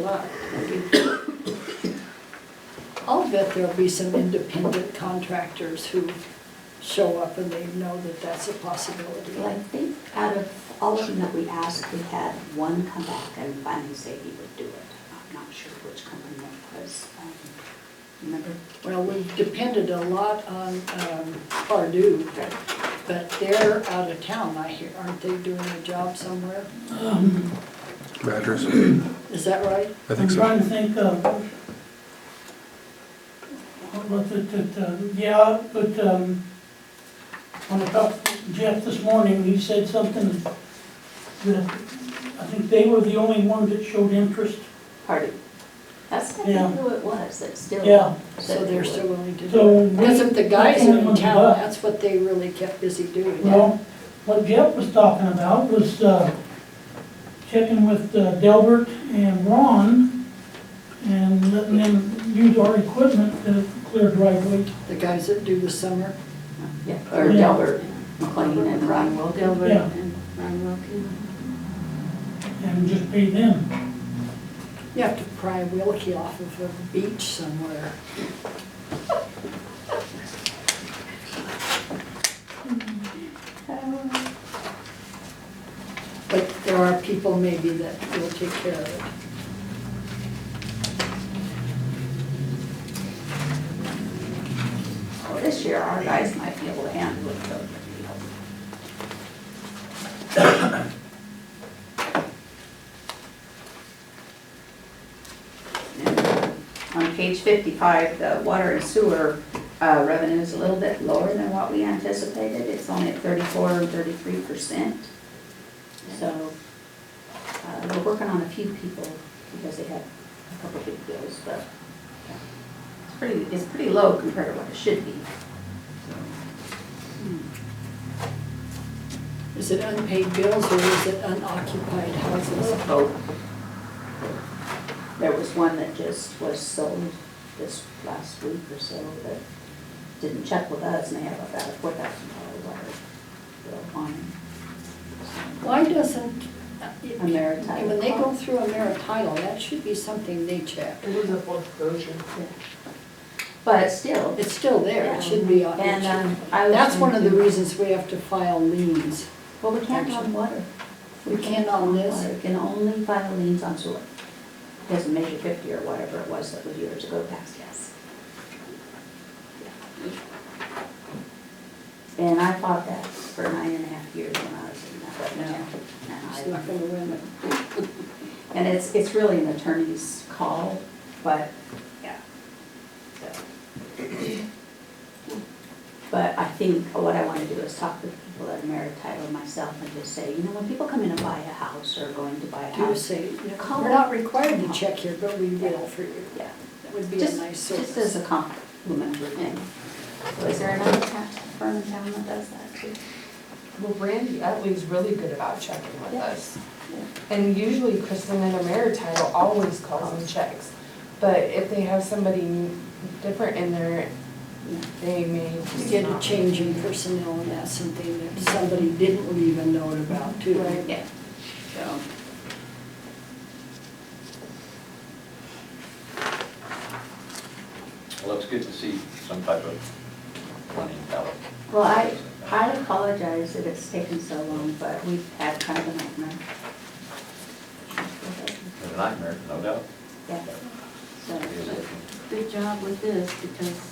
but I'll bet there'll be some independent contractors who show up and they know that that's a possibility. Well, I think out of all of them that we asked, we had one come back and finally say he would do it. I'm not sure which company that was, um, remember? Well, we've depended a lot on um, Pardue, but they're out of town, I hear. Aren't they doing a job somewhere? Madras, Is that right? Um, I I'm think so. trying to think of, what was it, that, uh, yeah, but, um, when I talked to Jeff this morning, he said something that, I think they were the only ones that showed interest. Party. That's, I Yeah. think who it was that still. Yeah. So they're still willing to do it. So. we- Because if the guys are in Nothing town, but- that's what they really kept busy doing. Well, what Jeff was talking about was uh, checking with uh, Delbert and Ron and letting them use our equipment to clear driveway. The guys that do the summer. Yeah, or Yeah. Delbert McLean and Ryan Wilkin. Delbert Yeah. and Ryan Wilkin. and just pay them. You have to pry Wilkie off of a beach somewhere. But there are people maybe that will take care of it. Well, this year, our guys might be able to handle it, though. you know. And On page fifty-five, the water and sewer uh, revenue is a little bit lower than what we anticipated. It's only at thirty-four or thirty-three percent. So, uh, we're working on a few people because they had a couple big bills, but yeah, it's pretty, it's pretty low compared to what it should be. Is it unpaid bills or is it unoccupied houses? vote. There was one that just was sold this last week or so that didn't check with us and they have about a four thousand dollar water bill on it. Why doesn't, uh, Ameritile. when they go through a Ameritile, that should be something they check. It was a foreclosure. But still, It's still there, it should be on. it and um, should- I was. That's one of the thinking- reasons we have to file liens. Well, we can't on water. We can't on this? water. We can only file liens on sewer. Doesn't measure fifty or whatever it was that was years ago past, yes. And I fought that for nine and a half years when I was in that, but Yeah. It's no. not gonna win it. And it's, it's really an attorney's call, but, yeah. So. But I think what I wanna do is talk to the people at Amerititle and myself and just say, you know, when people come in to buy a house or going to buy a Do house. say, Call we're not it. required to check here, but we will for you. Yeah. That would be a Just, nice just as service. a complimentary thing. So Is there another ta- firm in town that does that too? Well, Brandy Utley's really good about checking with Yeah. us. And usually Kristen and Ameritile always calls and checks. But if they have somebody different in there, they may. You get a change in personnel and that's something that somebody didn't leave a note about too. Right. Yeah, so. Well, it's good to see some type of money out. Well, I, I apologize that it's taken so long, but we've had kind of a nightmare. A nightmare, no doubt. Yeah, so, Good job with this because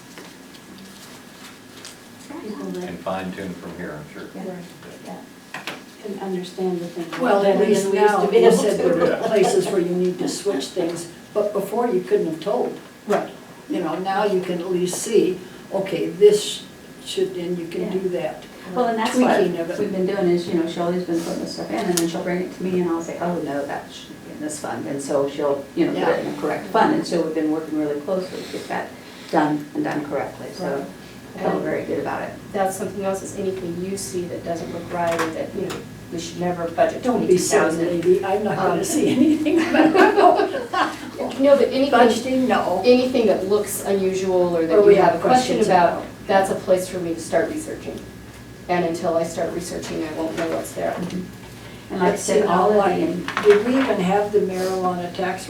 people that, And fine tune from here, I'm sure. yeah, yeah. can understand the thing. Well, at least now, be you said able there to. are places where you need to switch things, but before you couldn't have told. Right. You know, now you can at least see, okay, this should, and you can do that. Well, and that's Tweaking of it. what we've been doing is, you know, Shelley's been putting this stuff in and then she'll bring it to me and I'll say, oh, no, that should be in this fund. And so she'll, you know, put it in the correct fund. And so we've been working really closely to get that done and done correctly. So I feel very good about it. that's something else, is anything you see that doesn't look right, or that, you know, we should never budget Don't be twenty-two silly, thousand. lady, I'm not gonna Um, see anything about No, but anything, budgeting, no. anything that looks unusual, or Or that we you have have a question questions about, about. that's a place for me to start researching. And until I start researching, I won't know what's there. And like I said, all of the Did we even have the marijuana tax